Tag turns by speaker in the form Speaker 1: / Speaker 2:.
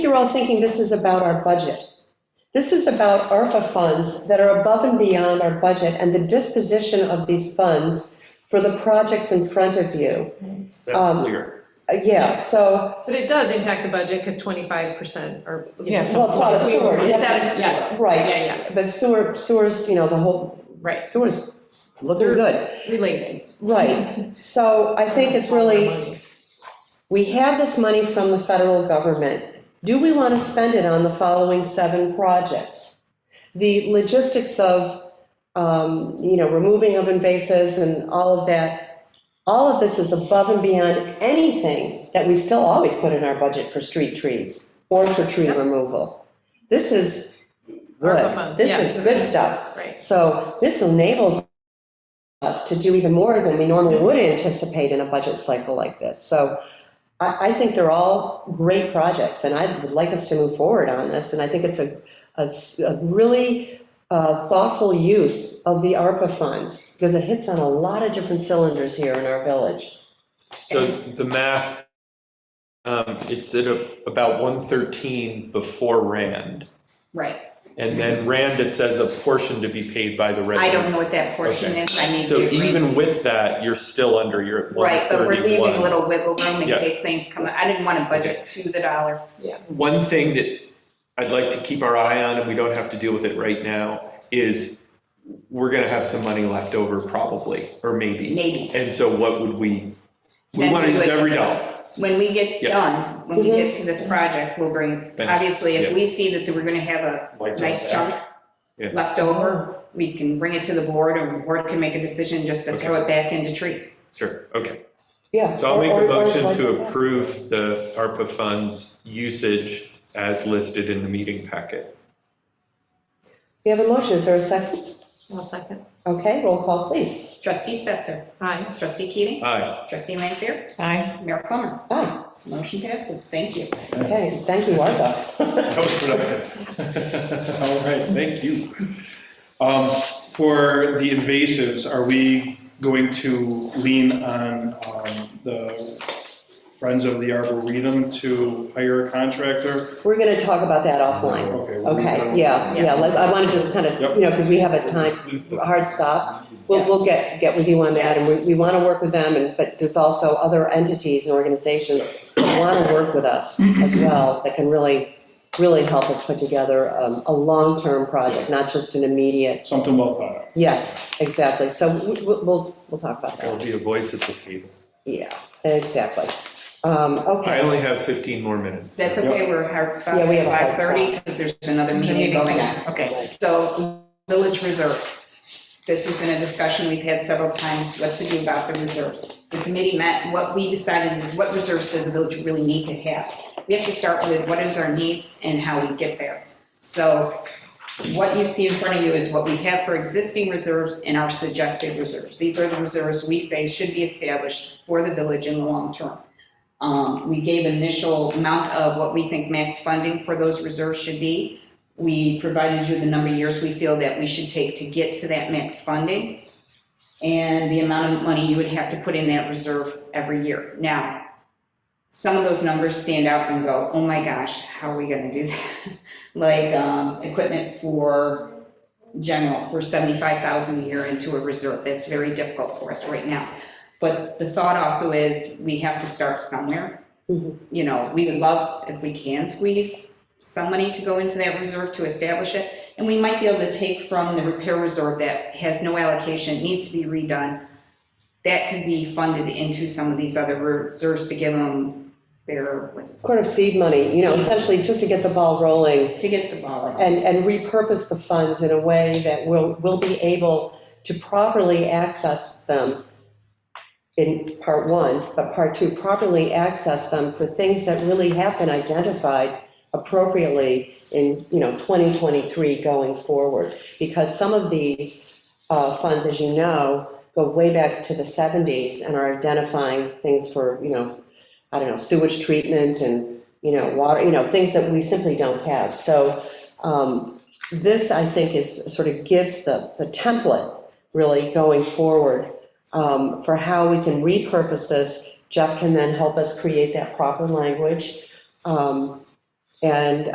Speaker 1: you're all thinking this is about our budget. This is about ARPA funds that are above and beyond our budget and the disposition of these funds for the projects in front of you.
Speaker 2: That's
Speaker 1: Um,
Speaker 2: clear.
Speaker 1: Uh, Yeah, so,
Speaker 3: But it does impact the budget because 25% are. you
Speaker 4: Yeah,
Speaker 3: know,
Speaker 1: well, it's not a sewer.
Speaker 3: It's out of
Speaker 4: Yes.
Speaker 3: sewer.
Speaker 1: Right,
Speaker 3: Yeah, yeah,
Speaker 1: but sewer, sewers, you know, the whole,
Speaker 3: right,
Speaker 1: sewers looking good.
Speaker 3: related.
Speaker 1: Right, so I think it's really. We have this money from the federal government. Do we want to spend it on the following seven projects? The logistics of, um, you know, removing of invasives and all of that, all of this is above and beyond anything that we still always put in our budget for street trees or for tree
Speaker 3: Yep.
Speaker 1: removal. This is
Speaker 3: ARPA
Speaker 1: good.
Speaker 3: funds,
Speaker 1: This
Speaker 3: yeah.
Speaker 1: is good stuff.
Speaker 3: Right,
Speaker 1: So this enables us to do even more than we normally would anticipate in a budget cycle like this. So I, I think they're all great projects, and I would like us to move forward on this. And I think it's a, a s- a really uh, thoughtful use of the ARPA funds, because it hits on a lot of different cylinders here in our village.
Speaker 2: So the math, um, it's at a- about 113 before Rand.
Speaker 4: Right.
Speaker 2: And then Rand, it says a portion to be paid by the
Speaker 4: Mm-hmm. I
Speaker 2: residents.
Speaker 4: don't know what that portion
Speaker 2: Okay.
Speaker 4: is, I need to.
Speaker 2: So
Speaker 4: read-
Speaker 2: even with that, you're still under your
Speaker 4: Right, but we're leaving a
Speaker 2: 131.
Speaker 4: little wiggle room in
Speaker 2: Yeah.
Speaker 4: case things come, up. I didn't want to budget to the dollar.
Speaker 2: One thing that I'd like to keep our eye on, and we don't have to deal with it right now, is we're going to have some money left over probably, or maybe.
Speaker 4: Maybe.
Speaker 2: And so what would we, we
Speaker 4: Then
Speaker 2: want to
Speaker 4: we
Speaker 2: use
Speaker 4: would-
Speaker 2: every dollar.
Speaker 4: When we get
Speaker 2: Yeah.
Speaker 4: done, when we get to this project, we'll bring,
Speaker 2: Then-
Speaker 4: obviously, if
Speaker 2: yeah.
Speaker 4: we see that we're going to have a
Speaker 2: Lights
Speaker 4: nice
Speaker 2: out.
Speaker 4: chunk
Speaker 2: Yeah.
Speaker 4: left over, we can bring it to the board, and the board can make a decision just to throw it back into trees.
Speaker 2: Sure, okay.
Speaker 1: Yeah.
Speaker 2: So I'll make
Speaker 1: or-
Speaker 2: a
Speaker 1: or- or
Speaker 2: motion
Speaker 1: like
Speaker 2: to
Speaker 1: that.
Speaker 2: approve the ARPA funds usage as listed in the meeting packet.
Speaker 1: We have a motion, is there a second?
Speaker 3: one second.
Speaker 1: Okay, roll call, please.
Speaker 4: Trustee Stetser,
Speaker 3: Hi,
Speaker 4: trustee Keating,
Speaker 2: Aye,
Speaker 4: trustee Lanfair. Aye. Mayor Plummer.
Speaker 1: Aye,
Speaker 4: Motion passes, thank you.
Speaker 1: okay, thank you, ARPA.
Speaker 2: that was productive. All right, thank you. Um,
Speaker 5: For the invasives, are we going to lean on um, the Friends of the Arboretum to hire a contractor?
Speaker 1: We're going to talk about that offline.
Speaker 5: we'll leave that
Speaker 1: Okay,
Speaker 5: alone.
Speaker 1: yeah, yeah, like, I want to just kind of,
Speaker 5: Yep.
Speaker 1: you know, because we have a time, a hard stop. We'll, we'll get, get with you on that, and we, we want to work with them, and, but there's also other entities and organizations that want to work with us as well, that can really, really help us put together um, a long-term project, not just an immediate,
Speaker 5: Something well thought out.
Speaker 1: yes, exactly. So we- we'll, we'll, we'll talk about
Speaker 2: There'll
Speaker 1: that.
Speaker 2: be a voice at the table.
Speaker 1: Yeah, exactly. Um,
Speaker 2: I
Speaker 1: okay,
Speaker 2: only have 15 more minutes.
Speaker 4: That's okay, we're hard stop
Speaker 1: Yeah, we have a hard Mm-hmm.
Speaker 4: at 5:30 because there's another meeting going on. Okay, so village reserves. This has been a discussion we've had several times, what to do about the reserves. The committee met, what we decided is what reserves does the village really need to have? We have to start with what is our needs and how we get there. So what you see in front of you is what we have for existing reserves and our suggested reserves. These are the reserves we say should be established for the village in the long term. Um, We gave initial amount of what we think max funding for those reserves should be. We provided you the number of years we feel that we should take to get to that max funding and the amount of money you would have to put in that reserve every year. Now, some of those numbers stand out and go, oh my gosh, how are we going to do that? Like um, equipment for general, for 75,000 a year into a reserve. That's very difficult for us right now. But the thought also is, we have to start somewhere.
Speaker 1: Mhm.
Speaker 4: You know, we would love if we can squeeze some money to go into that reserve to establish it. And we might be able to take from the repair reserve that has no allocation, needs to be redone. That could be funded into some of these other reserves to give them their,
Speaker 1: quarter of seed money, you know, essentially just to get the ball rolling.
Speaker 4: to get the ball
Speaker 1: and,
Speaker 4: rolling.
Speaker 1: and repurpose the funds in a way that will, will be able to properly access them in part one, but part two, properly access them for things that really have been identified appropriately in, you know, 2023 going forward. Because some of these uh, funds, as you know, go way back to the 70s and are identifying things for, you know, I don't know, sewage treatment and, you know, water, you know, things that we simply don't have. So um, This, I think, is, sort of gives the, the template, really, going forward um, for how we can repurpose this. Jeff can then help us create that proper language. Um, And